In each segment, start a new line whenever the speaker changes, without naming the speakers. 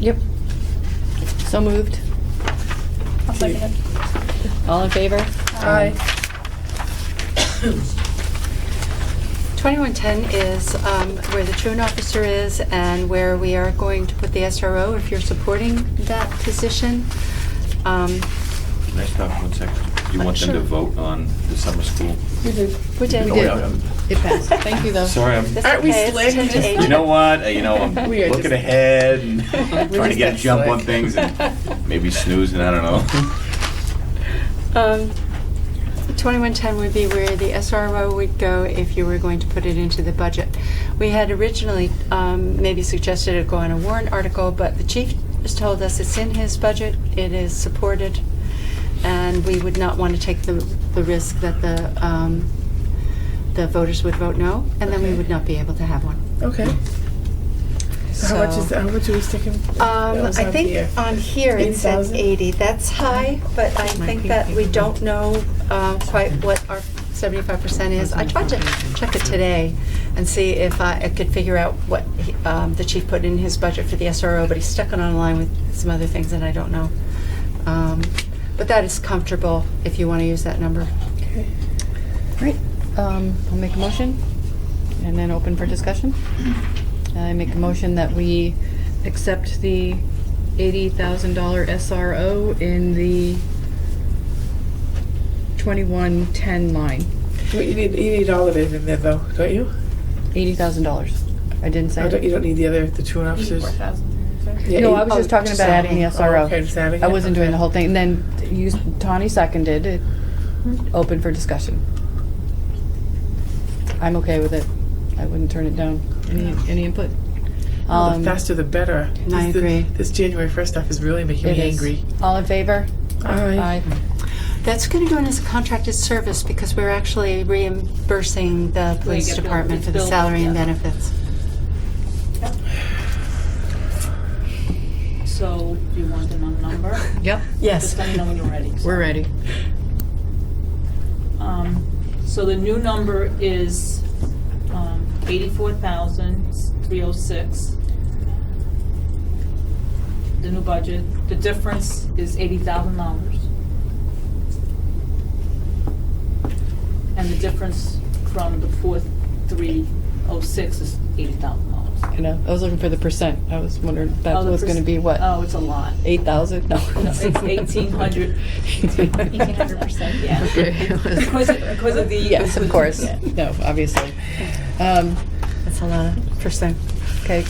Yep. So moved.
I'll second it.
All in favor?
Aye.
2110 is um, where the truant officer is and where we are going to put the SRO if you're supporting that position. Um,
Can I stop one second? You want them to
Sure.
vote on the summer school?
We did.
We
Oh,
did.
yeah, I'm-
It passed. Thank you, though.
Sorry, I'm,
That's
Aren't we
okay, it's
slick?
10 to
Just-
8.
you know what, Uh, you know, I'm
We are
looking
just-
ahead and trying to
just
get
that
a jump on
slick.
things and maybe snoozing, I don't know.
Um, 2110 would be where the SRO would go if you were going to put it into the budget. We had originally um, maybe suggested it go on a warrant article, but the chief has told us it's in his budget, it is supported, and we would not want to take the the risk that the um, the voters would vote no, and then we
Okay.
would not be able to have one.
Okay. So how much
So-
is, how much are we sticking?
um,
that was
I
on here?
think on here it says
80,000?
80. That's high, but I think that we don't know uh, quite what our 75% is. I tried to check it today and see if I I could figure out what he- um, the chief put in his budget for the SRO, but he's stuck it online with some other things that I don't know. Um, But that is comfortable if you want to use that number.
Okay.
Great. Um, I'll make a motion and then open for discussion. I make a motion that we accept the $80,000 SRO in the 2110 line.
Wait, you need, you need all of it in there though, don't you?
$80,000. I didn't say
I don't,
it.
you don't need the other, the two officers? Yeah,
No,
eight-
I was just
oh,
talking about adding the
Oh, okay,
SRO.
just adding
I
it,
wasn't doing
okay.
the whole thing. And then you, Tawny seconded it. Open for discussion. I'm okay with it. I wouldn't turn it down. Any, any input?
Well,
Um,
The faster the better.
I
This- the-
agree.
This January first stuff is really making
It
me
is.
angry.
All in favor?
Aye.
That's going to go in as a contracted service because we're actually reimbursing the police
get billed-
department for the
billed,
salary and
yeah.
benefits.
So do you want the num- number?
Yep,
Yes.
Just let me know when you're ready.
we're ready.
Um, So the new number is um, 84,306. The new budget, the difference is $80,000. And the difference from the 4,306 is $80,000.
You know, I was looking for the percent. I was wondering if that
Oh, the
was gonna
perc-
be what,
Oh, it's a lot.
eight thousand? No.
No, it's 1,800. 1,800%, yeah.
Okay.
Because of- because of the-
Yes, of course.
Yeah.
No, obviously. Um,
That's a lot of percent.
okay,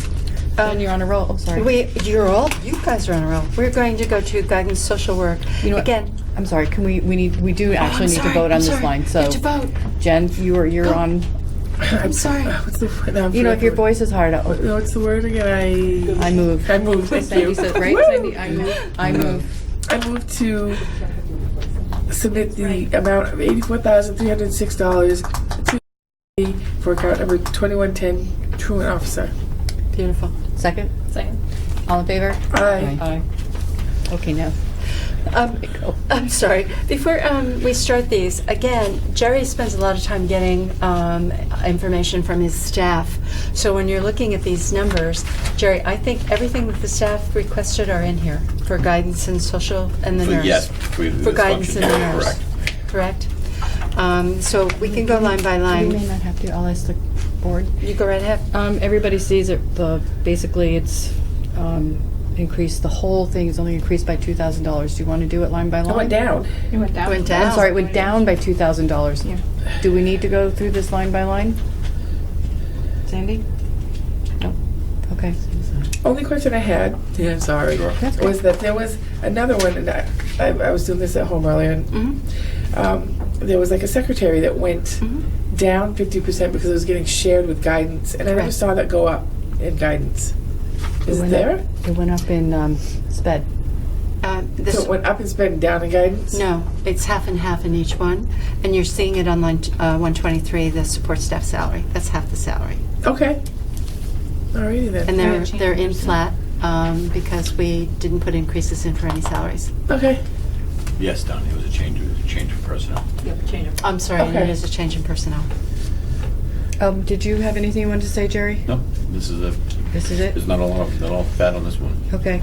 Jen, you're on a roll. Oh, sorry.
We, you're all, you guys are on a roll. We're going to go to guidance social work.
You know what?
Again.
I'm sorry, can we, we need, we do
Oh, I'm
actually need to
sorry,
vote on
I'm
this
sorry.
line,
You
so.
have to vote.
Jen, you are, you're
Go.
on,
I'm sorry.
What's the, word? no, I'm
you know, if your
forgetting
voice is hard,
the word.
I'll-
No, what's the word again?
I move.
I, I moved, thank you.
right?
Woo!
Sandy, I move, I move.
I move to submit the amount of eighty-four thousand three hundred six dollars to the- for account number twenty-one ten truant officer.
Beautiful.
Second?
Second.
All in favor?
Aye.
Aye. Okay, now.
Um, I'm sorry. Before um, we start these, again, Jerry spends a lot of time getting um, information from his staff. So when you're looking at these numbers, Jerry, I think everything that the staff requested are in here for guidance and social and the
For-
nurse.
Yes. we-
For
this
guidance
function,
and the nurse.
Correct.
Correct? Um, So we can go line by
You may
line.
not have to, I'll ask the board.
You go right ahead.
Um, everybody sees it, the, basically it's, um, increased, the whole thing is only increased by two thousand dollars. Do you want to do it line by
I
line?
went down.
Went
I'm
down.
sorry, it went down by two thousand dollars. Do we need to go through this line by line? Sandy? No. Okay.
Only question I had, yeah, I'm sorry,
Sure.
That's
was that there was another one, and I, I, I was doing this at home earlier, and
Mm-hmm.
Mhm.
um, there was like a secretary that went
Mm-hmm.
Mhm.
down 50% because it was getting shared with guidance, and I never
Correct.
saw that go up in guidance.
It
Is it
went up-
there?
It went up in, um, sped.
Uh,
So
This
it went up and spent down in guidance?
No, it's half and half in each one, and you're seeing it on line uh, 123, the support staff salary. That's half the salary.
Okay. Alrighty then.
And they're, they're in flat um, because we didn't put increases in for any salaries.
okay.
Yes, Don, it was a change, it was a change of personnel.
Yep, change of.
I'm sorry, and it
Okay.
is a change in personnel.
Um, did you have anything you wanted to say, Jerry?
No, this is a
This is it?
There's not a lot of, not all fat on this one.
Okay.